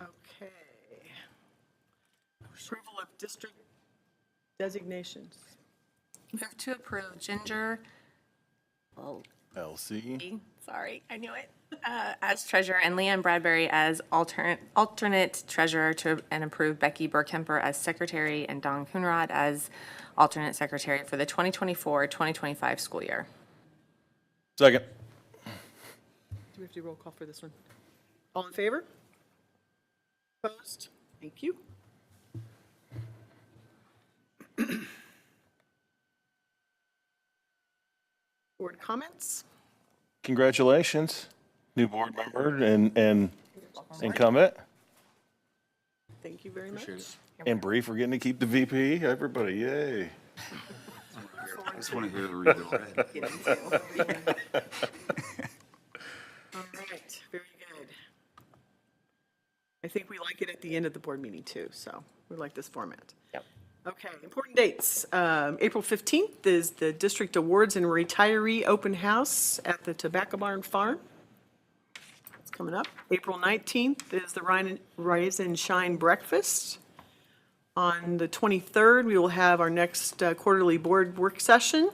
Okay. Approval of district designations. Move to approve Ginger, oh, LC. sorry, I knew it, uh, as treasurer and Leanne Bradbury as alternate, alternate treasurer to, and approve Becky Burkemper as secretary and Don Coonrod as alternate secretary for the 2024, 2025 school year. Second. Do we have to do roll call for this one? All in favor? Opposed? Thank you. Board comments? Congratulations, new board member and, and incumbent. Thank you very much. And Bree for getting to keep the VP. Everybody, yay. I just want to hear the rebuild. Go ahead. All right, very good. I think we like it at the end of the board meeting too, so we like this format. Yep. Okay, important dates. Um, April 15th is the District Awards and Retiree Open House at the Tobacco Barn Farm. It's coming up. April 19th is the Rhine and- Rise and Shine Breakfast. On the 23rd, we will have our next uh, quarterly board work session.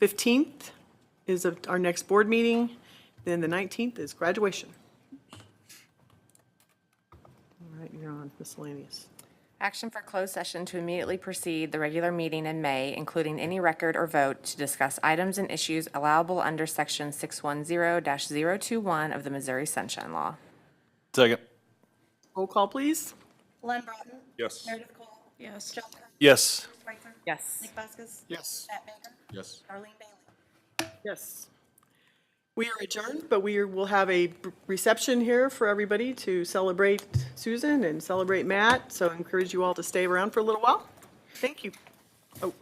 15th is of- our next board meeting, then the 19th is graduation. All right, you're on miscellaneous. Action for closed session to immediately precede the regular meeting in May, including any record or vote to discuss items and issues allowable under Section 610-021 of the Missouri Sunshine Law. Second. Roll call, please. Glenn Broughton. Yes. Meredith Cole. Yes. John Burns. Yes. Bruce Wakeler. Yes. Nick Vaskus. Yes. Matt Baker. Yes. Darlene Bailey. Yes. We are adjourned, but we will have a reception here for everybody to celebrate Susan and celebrate Matt, so I encourage you all to stay around for a little while. Thank you. Oh.